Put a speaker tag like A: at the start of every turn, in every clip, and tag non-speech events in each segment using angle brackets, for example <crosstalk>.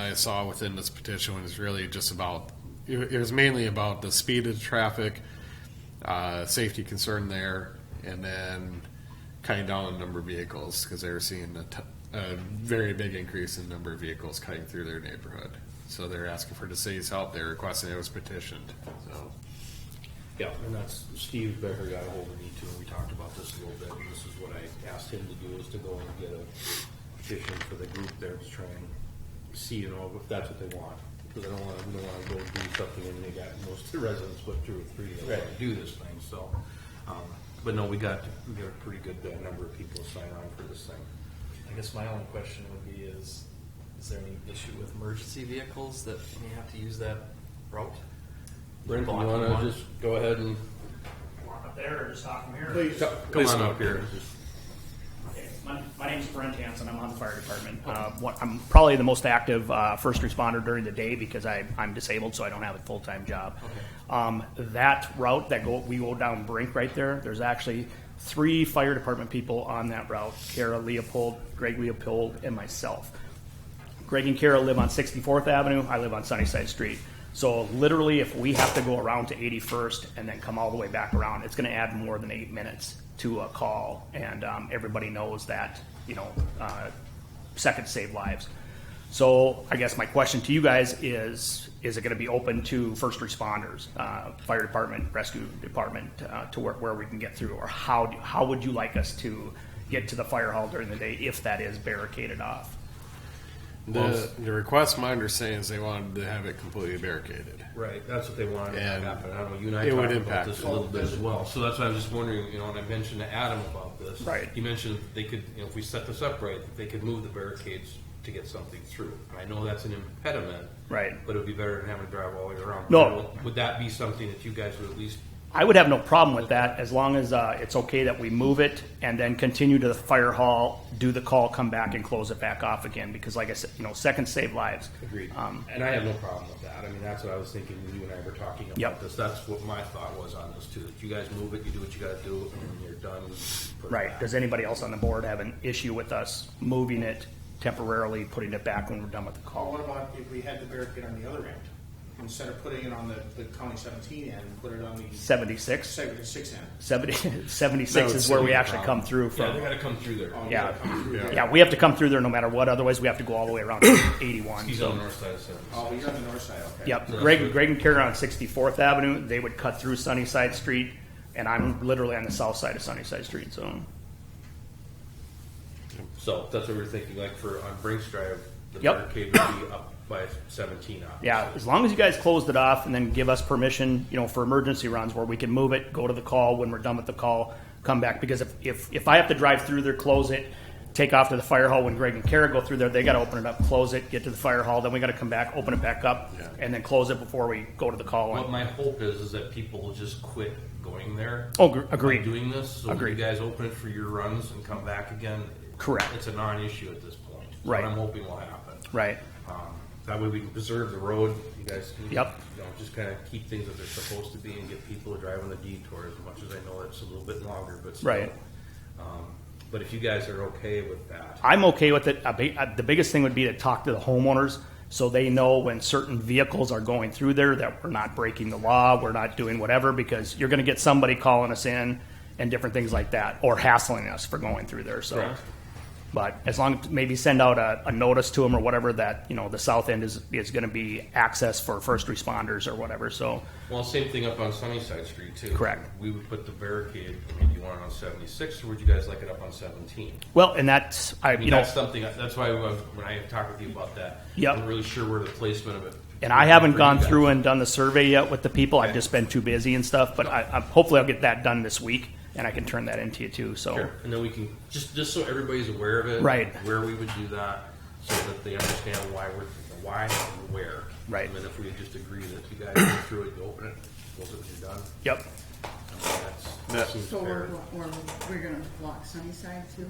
A: I saw within this petition was really just about, it it was mainly about the speed of traffic, uh, safety concern there, and then cutting down on the number of vehicles, because they were seeing a, t- a very big increase in number of vehicles cutting through their neighborhood. So they're asking for the city's help, they're requesting it was petitioned, so.
B: Yeah, and that's, Steve Becker got ahold of me too, and we talked about this a little bit, and this is what I asked him to do, is to go and get a petition for the group there to try and see, you know, if that's what they want. Because I don't wanna, we don't wanna go do something and they got most of the residents, but two or three that wanna do this thing, so. um, But no, we got, we got a pretty good uh, number of people sign on for this thing.
C: I guess my only question would be is, is there any issue with emergency vehicles that may have to use that route?
B: Brent, you
C: Blocking
B: wanna
C: one?
B: just go ahead and
D: Want up there or just talk from here?
B: come on up here?
D: Okay, My, my name's Brent Hansen. I'm on the fire department. Uh, what, I'm probably the most active uh, first responder during the day because I, I'm disabled, so I don't have a full time job. Um, that route that go we go down Brink right there. There's actually three fire department people on that route: Kara Leopold, Greg Leopold, and myself. Greg and Kara live on 64th Avenue. I live on Sunnyside Street. So literally, if we have to go around to 81st and then come all the way back around, it's going to add more than eight minutes to a call. And um, everybody knows that, you know, uh, seconds save lives. So I guess my question to you guys is, is it going to be open to first responders, uh, fire department, rescue department, uh, to where, where we can get through? Or how, do- how would you like us to get to the fire hall during the day if that is barricaded off?
A: The, the request, my understanding is they wanted to have it completely barricaded.
B: Right, that's what they wanted to
A: And
B: happen. I don't know, you and I
A: it would
B: talked about
A: impact
B: this
A: it.
B: a little bit as well. So that's why I was just wondering, you know, and I mentioned to Adam about this.
D: Right.
B: He mentioned that they could, you know, if we set this up right, that they could move the barricades to get something through. And I know that's an impediment.
D: Right.
B: But it'd be better than having to drive all the way around.
D: No.
B: Would that be something that you guys would at least,
D: I would have no problem with that as long as uh, it's okay that we move it and then continue to the fire hall, do the call, come back and close it back off again. Because like I said, you know, seconds save lives.
B: agreed?
D: Um,
B: And I have no problem with that. I mean, that's what I was thinking when you and I were talking about
D: Yep.
B: this. That's what my thought was on this too. That you guys move it, you do what you gotta do, and when you're done, you put it
D: right.
B: back.
D: Does anybody else on the board have an issue with us moving it temporarily, putting it back when we're done with the
E: Well,
D: call?
E: what about if we had the barricade on the other end? Instead of putting it on the, the county seventeen end, put it on the
D: 76?
E: segment six end?
D: <laughs> 70,
A: That
D: 76
A: would
D: is where
A: still
D: we
A: be a
D: actually
A: problem.
D: come through
B: Yeah,
D: from.
B: they gotta come through there.
E: Oh,
D: Yeah.
E: come through there.
D: Yeah, we have to come through there no matter what, otherwise we have to go all the way around to 81.
B: He's
D: so-
B: on the north side of seven.
E: Oh, you're on the north side, okay.
D: Yep, Greg, Greg and Karen on Sixty-Fourth Avenue, they would cut through Sunnyside Street, and I'm literally on the south side of Sunnyside Street, so,
B: So that's what we we're thinking, like for on Brinks Drive, the
D: Yep.
B: barricade would be up by seventeen. obviously.
D: yeah, as long as you guys closed it off and then give us permission, you know, for emergency runs where we can move it, go to the call, when we're done with the call, come back, because if, if, if I have to drive through there, close it, take off to the fire hall, when Greg and Karen go through there, they gotta open it up, close it, get to the fire hall, then we gotta come back, open it back up,
A: Yeah.
D: and then close it before we go to the call.
B: What
D: And-
B: my hope is, is that people will just quit going there.
D: Oh, gr- agreed.
B: Doing this, so when you
D: Agreed.
B: guys open it for your runs and come back again.
D: Correct.
B: It's a non-issue at this point. That's
D: Right.
B: What I'm hoping will happen.
D: Right,
B: Um, That way we can preserve the road, you guys can.
D: Yep.
B: You know, just kind of keep things as they're supposed to be and get people to drive on the detour as much as I know it's a little bit longer, but still.
D: Right.
B: Um, But if you guys are okay with that.
D: I'm okay with it. A big, uh the biggest thing would be to talk to the homeowners so they know when certain vehicles are going through there that we're not breaking the law, we're not doing whatever, because you're going to get somebody calling us in and different things like that, or hassling us for going through there. So,
B: Correct.
D: but as long as maybe send out a, a notice to them or whatever that you know the south end is is going to be access for first responders or whatever. So,
B: Well, same thing up on Sunnyside Street too.
D: Correct.
B: We would put the barricade, I mean, do you want it on seventy-six, or would you guys like it up on seventeen?
D: well, and that's I
B: I
D: you
B: mean,
D: know
B: that's something, that's why when when I talked with you about that.
D: Yep.
B: I'm really sure where the placement of it.
D: And I haven't
B: for you
D: gone
B: guys.
D: through and done the survey yet with the people. I've just been too busy and stuff. But I, I, hopefully, I'll get that done this week, and I can turn that into you too. So,
B: Sure. And then we can, just, just so everybody's aware of it.
D: Right.
B: Where we would do that, so that they understand why we're, the why and where.
D: Right.
B: And then if we just agree that you guys go through it, you open it, close it when you're done,
D: yep.
B: I mean, that's, that
A: That-
B: seems
F: So we're,
B: fair.
F: we're, we're gonna block Sunnyside too?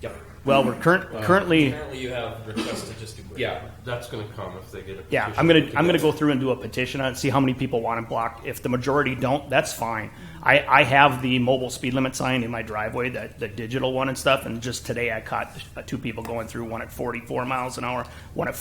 B: Yep.
D: Well, we're current, currently,
C: Apparently you have requests to just do.
B: Yeah, that's gonna come if they get a.
D: yeah.
B: petition
D: I'm gonna
B: to
D: I'm gonna go through and do a petition on it, see how many people want it blocked. If the majority don't, that's fine. I, I have the mobile speed limit sign in my driveway, that the digital one and stuff. And just today, I caught uh, two people going through one at 44 miles an hour, one at